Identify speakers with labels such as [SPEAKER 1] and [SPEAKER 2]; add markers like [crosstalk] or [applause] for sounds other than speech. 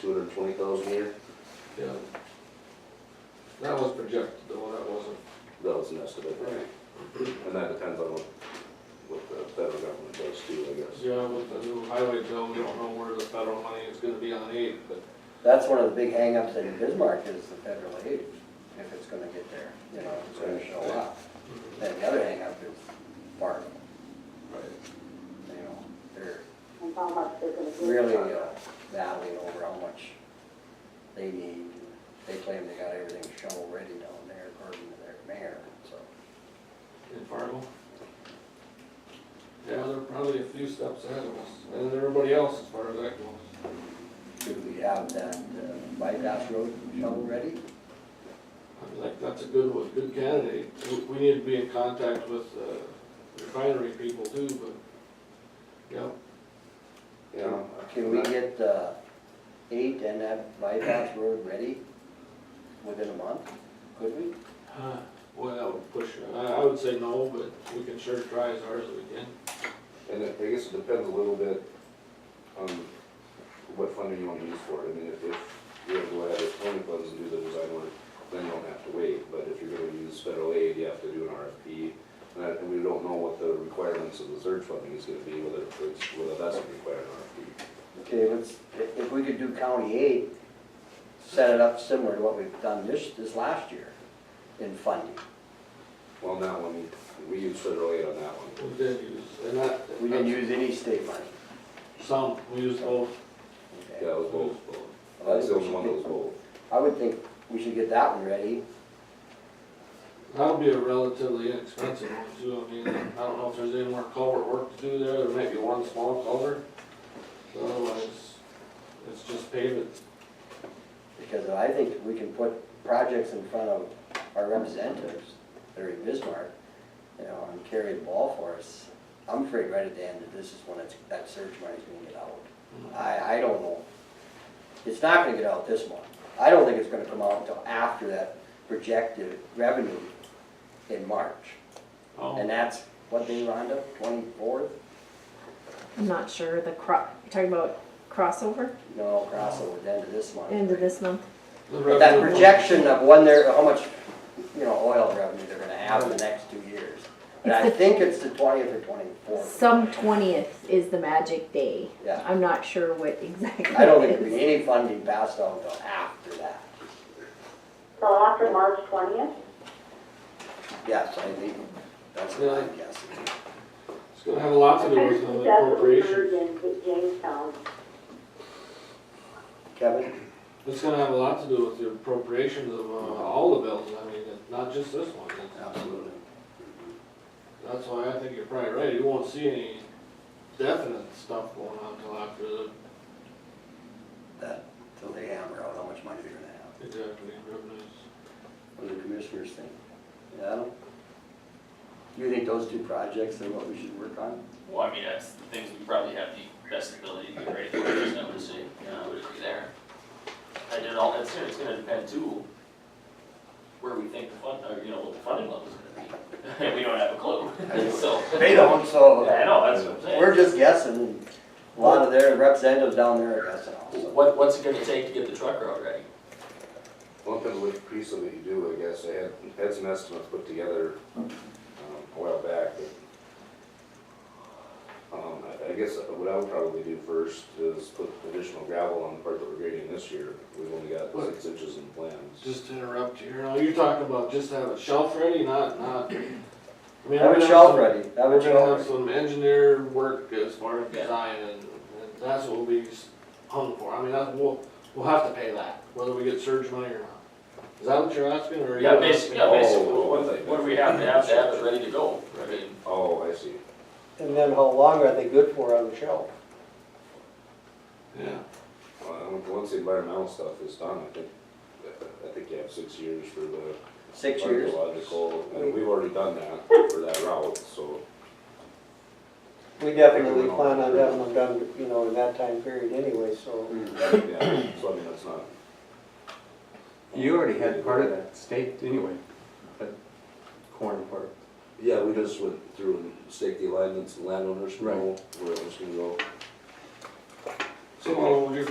[SPEAKER 1] two hundred and twenty thousand a year?
[SPEAKER 2] Yeah. That was projected though, that wasn't.
[SPEAKER 1] That was an estimate. And that depends on what, what the federal government does too, I guess.
[SPEAKER 2] Yeah, with the new highway bill, we don't know where the federal money is gonna be on aid, but
[SPEAKER 3] That's one of the big hangups in Bismarck is the federal aid, if it's gonna get there, you know, if it's gonna show up. Then the other hangup is farming, you know, they're
[SPEAKER 4] and how much they're gonna do.
[SPEAKER 3] really uh, battling over how much they need. They claim they got everything shovel ready down there according to their mayor, so.
[SPEAKER 2] in Fargo. Yeah, they're probably a few steps ahead of us, and everybody else as far as that goes.
[SPEAKER 3] Do we have that uh, bypass road shovel ready?
[SPEAKER 2] I think that's a good one, good candidate. We- We need to be in contact with uh, refinery people too, but, yeah,
[SPEAKER 1] Yeah.
[SPEAKER 3] Can we get the eight and that bypass road ready within a month? Could we?
[SPEAKER 2] Huh, Boy, that would push, it. I, I would say no, but we can sure try as hard as we can.
[SPEAKER 1] And it- I guess it depends a little bit on what funding you wanna use for it. I mean, if, if you're gonna go ahead with county funds and do the design work, then you don't have to wait. But if you're gonna use federal aid, you have to do an RFP. And that- and we don't know what the requirements of the surge funding is gonna be, whether it's, whether that's gonna require an RFP.
[SPEAKER 3] Okay, let's, if if we could do county eight, set it up similar to what we've done this, this last year in funding.
[SPEAKER 1] Well, on that one, we use federal aid on that one.
[SPEAKER 2] We did use, and that.
[SPEAKER 3] We didn't use any state money.
[SPEAKER 2] Some, we used both.
[SPEAKER 3] okay?
[SPEAKER 1] Yeah, it was both. That's the only one that was both.
[SPEAKER 3] I would think we should get that one ready.
[SPEAKER 2] That'll be a relatively inexpensive one too, I mean, I don't know if there's any more culvert work to do there, there might be one small culvert. So Otherwise, it's just pavement.
[SPEAKER 3] Because I think we can put projects in front of our representatives that are in Bismarck, you know, and carry the ball for us. I'm afraid right at the end that this is when it's, that surge money's gonna get out. I, I don't know. It's not gonna get out this month. I don't think it's gonna come out until after that projected revenue in March. And
[SPEAKER 2] Oh,
[SPEAKER 3] that's, what day, Rhonda, twenty-fourth?
[SPEAKER 5] I'm not sure, the cro, you're talking about crossover,
[SPEAKER 3] No, crossover, the end of this month.
[SPEAKER 5] end of this month?
[SPEAKER 2] the
[SPEAKER 3] But that
[SPEAKER 2] revenue-
[SPEAKER 3] projection of when they're, how much, you know, oil revenue they're gonna have in the next two years. And I
[SPEAKER 5] It's the-
[SPEAKER 3] think it's the twentieth or twenty-fourth.
[SPEAKER 5] Some twentieth is the magic day.
[SPEAKER 3] Yeah.
[SPEAKER 5] I'm not sure what [laughs] exactly
[SPEAKER 3] I don't think
[SPEAKER 5] it
[SPEAKER 3] there'll be
[SPEAKER 5] is.
[SPEAKER 3] any funding passed on until after that.
[SPEAKER 4] So after March twentieth,
[SPEAKER 3] Yes, I think, that's what I'm guessing.
[SPEAKER 2] It's gonna have a lot to do
[SPEAKER 4] kind of
[SPEAKER 2] with
[SPEAKER 4] see
[SPEAKER 2] the
[SPEAKER 4] that what we heard
[SPEAKER 2] appropriation,
[SPEAKER 4] in J- Jamestown.
[SPEAKER 3] Kevin?
[SPEAKER 2] it's gonna have a lot to do with the appropriations of uh, all the bills, I mean, it's not just this one. It's-
[SPEAKER 3] Absolutely.
[SPEAKER 2] That's why I think you're probably right, you won't see any definite stuff going on until after the,
[SPEAKER 3] That, till they hammer out how much money they're gonna have.
[SPEAKER 2] exactly, revenues.
[SPEAKER 3] What do the commissioners think? Yeah? You think those two projects are what we should work on?
[SPEAKER 6] Well, I mean, that's the things we probably have the best ability to do, right, there's no decision, you know, would be there. I did all, it's, it's gonna depend too, where we think the fund, or, you know, what the funding level's gonna be. [laughs] We don't have a clue, so,
[SPEAKER 3] They don't, so.
[SPEAKER 6] I know, that's what I'm saying.
[SPEAKER 3] We're just guessing, a lot of their representatives down there are guessing also.
[SPEAKER 6] What, what's it gonna take to get the truck route ready?
[SPEAKER 1] Well, it depends what piece of it you do, I guess. I had, had some estimates put together um, a while back, but um, I, I guess what I would probably do first is put additional gravel on the part that we're grading this year. We've only got six inches in plans.
[SPEAKER 2] Just to interrupt you, you know, you're talking about just have a shelf ready, not, not. I mean, we're
[SPEAKER 3] Have
[SPEAKER 2] gonna
[SPEAKER 3] a shelf
[SPEAKER 2] some-
[SPEAKER 3] ready, have
[SPEAKER 2] We're
[SPEAKER 3] a
[SPEAKER 2] gonna have
[SPEAKER 3] shelf ready.
[SPEAKER 2] some engineer work as far as
[SPEAKER 6] Yeah.
[SPEAKER 2] design and, and that's what we'll be s- hung for, I mean, that, we'll, we'll have to pay that, whether we get surge money or not. Is that what you're asking, or? are you
[SPEAKER 6] Yeah, basically, yeah, basically,
[SPEAKER 1] Oh,
[SPEAKER 6] what, what do we have to have to have it ready to go, I mean,
[SPEAKER 1] Oh, I see.
[SPEAKER 3] And then how long are they good for on the shelf?
[SPEAKER 2] Yeah,
[SPEAKER 1] Well, once the environmental stuff is done, I think, I think you have six years for the
[SPEAKER 3] Six years.
[SPEAKER 1] archaeological. And we've already done that for that route, so.
[SPEAKER 7] We definitely plan on having them done, you know, in that time period anyway, so.
[SPEAKER 1] Yeah, so I mean, that's not.
[SPEAKER 8] You already had part of that staked anyway, that corn part.
[SPEAKER 1] Yeah, we just went through and staked the alignments, and landowners know
[SPEAKER 8] Right.
[SPEAKER 1] where it was gonna go.
[SPEAKER 2] so what would you